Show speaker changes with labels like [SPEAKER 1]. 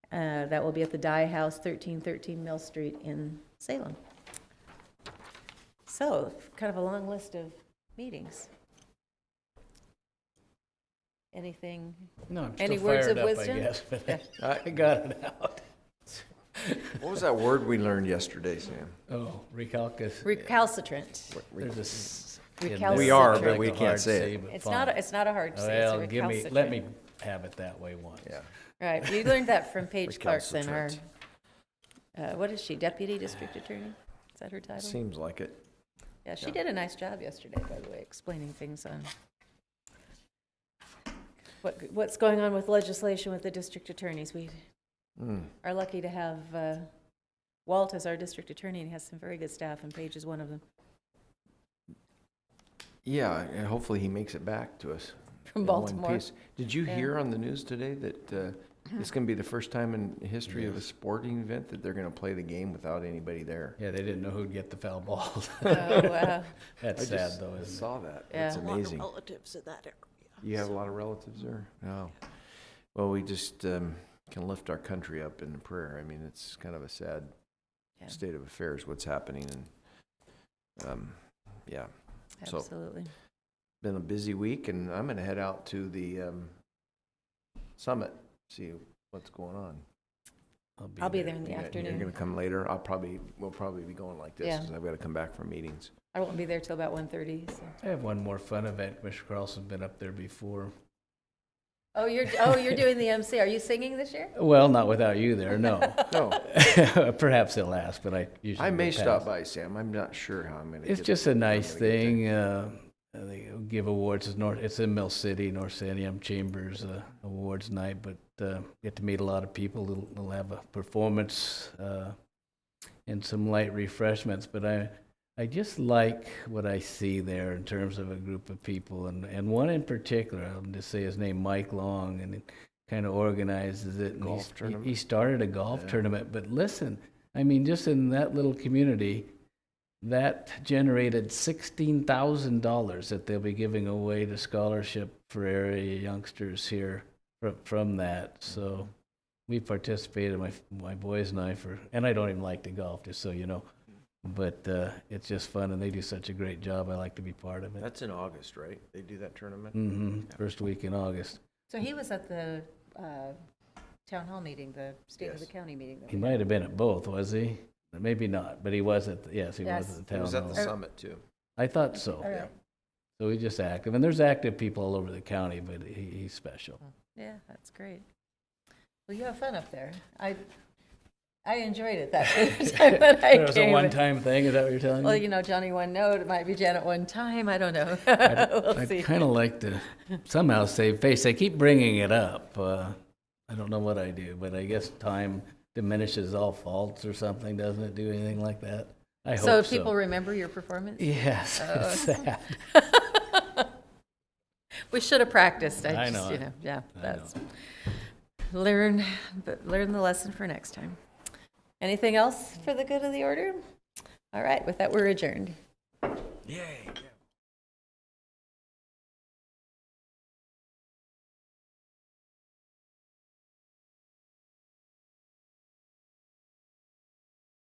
[SPEAKER 1] Uh, That will be at the Dye House, 1313 Mill Street in Salem. So, kind of a long list of meetings. Anything?
[SPEAKER 2] No, I'm
[SPEAKER 1] Any
[SPEAKER 2] still
[SPEAKER 1] words
[SPEAKER 2] fired
[SPEAKER 1] of
[SPEAKER 2] up, I
[SPEAKER 1] wisdom?
[SPEAKER 2] guess, but I
[SPEAKER 3] Uh,
[SPEAKER 2] got it out.
[SPEAKER 3] What was that word we learned yesterday, Sam?
[SPEAKER 2] Oh, recalcus.
[SPEAKER 1] Recalcitrant.
[SPEAKER 2] There's a s- in there.
[SPEAKER 1] Recalcitrant. We are,
[SPEAKER 2] It's
[SPEAKER 1] but
[SPEAKER 2] like
[SPEAKER 3] we
[SPEAKER 2] a
[SPEAKER 3] can't
[SPEAKER 2] hard
[SPEAKER 3] say it.
[SPEAKER 2] C, but
[SPEAKER 1] It's not,
[SPEAKER 2] fun.
[SPEAKER 1] a- it's not a hard C, it's a
[SPEAKER 2] Well, give me,
[SPEAKER 1] recalcitrant.
[SPEAKER 2] let me have it that way once.
[SPEAKER 3] Yeah.
[SPEAKER 1] Right, we learned that from Paige Clarkson, our,
[SPEAKER 3] Recalcitrant.
[SPEAKER 1] uh, what is she, Deputy District Attorney? Is that her title?
[SPEAKER 3] Seems like it.
[SPEAKER 1] Yeah, she did a nice job yesterday, by the way, explaining things on what, what's going on with legislation with the district attorneys. We
[SPEAKER 3] Hmm.
[SPEAKER 1] are lucky to have uh, Walt as our district attorney, and he has some very good staff, and Paige is one of them,
[SPEAKER 3] Yeah, and hopefully he makes it back to us.
[SPEAKER 1] from
[SPEAKER 3] in one
[SPEAKER 1] Baltimore.
[SPEAKER 3] piece. Did you
[SPEAKER 1] Yeah.
[SPEAKER 3] hear on the news today that uh, it's going to be the first time in history of a sporting event that they're going to play the game without anybody there?
[SPEAKER 2] Yeah, they didn't know who'd get the foul ball.
[SPEAKER 1] Oh, wow.
[SPEAKER 2] That's
[SPEAKER 3] I
[SPEAKER 2] sad
[SPEAKER 3] just
[SPEAKER 2] though, isn't
[SPEAKER 3] Saw that. That's
[SPEAKER 1] Yeah.
[SPEAKER 4] a lot of
[SPEAKER 3] amazing.
[SPEAKER 4] relatives in that area.
[SPEAKER 3] You have a lot of relatives there? No. Well, we just um, can lift our country up in prayer. I mean, it's kind of a sad
[SPEAKER 1] Yeah.
[SPEAKER 3] state of affairs, what's happening. And, um, yeah, So-
[SPEAKER 1] Absolutely.
[SPEAKER 3] been a busy week and I'm going to head out to the um, summit, see what's going on.
[SPEAKER 2] it?
[SPEAKER 1] I'll be there in the
[SPEAKER 3] You got- You're
[SPEAKER 1] afternoon.
[SPEAKER 3] going to come later. I'll probably, we'll probably be going like this
[SPEAKER 1] Yeah.
[SPEAKER 3] 'cause I've got to come back from meetings.
[SPEAKER 1] I won't be there till about 1:30, so.
[SPEAKER 2] I have one more fun event. Commissioner Carlson's been up there before.
[SPEAKER 1] Oh, you're, oh, you're doing the MC. Are you singing this year?
[SPEAKER 2] Well, not without you there, no.
[SPEAKER 3] No,
[SPEAKER 2] Perhaps he'll ask, but I usually.
[SPEAKER 3] I may
[SPEAKER 2] will pass.
[SPEAKER 3] stop by, Sam. I'm not sure how I'm going to.
[SPEAKER 2] It's just a nice thing. Uh, they give awards. It's North. It's in Mill City, North Sandium Chambers uh, Awards Night. But uh, get to meet a lot of people. They'll, they'll have a performance uh, and some light refreshments. But I, I just like what I see there in terms of a group of people, and and one in particular. I'll just say his name, Mike Long, and it kind of organizes it. And
[SPEAKER 3] Golf
[SPEAKER 2] he's- he-
[SPEAKER 3] tournament?
[SPEAKER 2] He started a golf
[SPEAKER 3] Yeah.
[SPEAKER 2] tournament. But listen, I mean, just in that little community that generated sixteen thousand dollars that they'll be giving away to scholarship for area youngsters here from, from that. So we participated. My my boys and I for, and I don't even like to golf, just so you know. But uh, it's just fun, and they do such a great job. I like to be part of it.
[SPEAKER 3] That's in August, right? They do that tournament?
[SPEAKER 2] hmm First week in August.
[SPEAKER 1] So he was at the uh, town hall meeting, the state of the
[SPEAKER 3] Yes.
[SPEAKER 1] county meeting. that
[SPEAKER 2] He
[SPEAKER 1] we-
[SPEAKER 2] might have been at both, was he? Maybe not, but he was at. The, yes, he
[SPEAKER 1] Yes.
[SPEAKER 2] was at the
[SPEAKER 3] It
[SPEAKER 2] town
[SPEAKER 3] was at the
[SPEAKER 2] hall.
[SPEAKER 3] summit too.
[SPEAKER 2] I thought so.
[SPEAKER 1] All right.
[SPEAKER 2] So he's just active, and there's active people all over the county, but he, he's special.
[SPEAKER 1] Yeah, that's great. Well, you have fun up there. I, I enjoyed it that first time that I
[SPEAKER 2] It was a
[SPEAKER 1] came.
[SPEAKER 2] one-time thing, is that what you're telling
[SPEAKER 1] Well,
[SPEAKER 2] me?
[SPEAKER 1] you know, Johnny one note, it might be Janet one time, I don't know. We'll
[SPEAKER 2] I'd
[SPEAKER 1] see.
[SPEAKER 2] kind of like to somehow save face. They keep bringing it up. Uh, I don't know what I do, but I guess time diminishes all faults or something, doesn't it? Do anything like that? I
[SPEAKER 1] So
[SPEAKER 2] hope
[SPEAKER 1] if people Oh.
[SPEAKER 2] so.
[SPEAKER 1] remember your performance?
[SPEAKER 2] Yes, it's sad.
[SPEAKER 1] We should have practiced, I
[SPEAKER 2] I
[SPEAKER 1] just,
[SPEAKER 2] know.
[SPEAKER 1] you know, yeah,
[SPEAKER 2] I
[SPEAKER 1] that's,
[SPEAKER 2] know.
[SPEAKER 1] learn, but learn the lesson for next time. Anything else for the good of the order? All right, with that, we're adjourned.
[SPEAKER 3] Yay.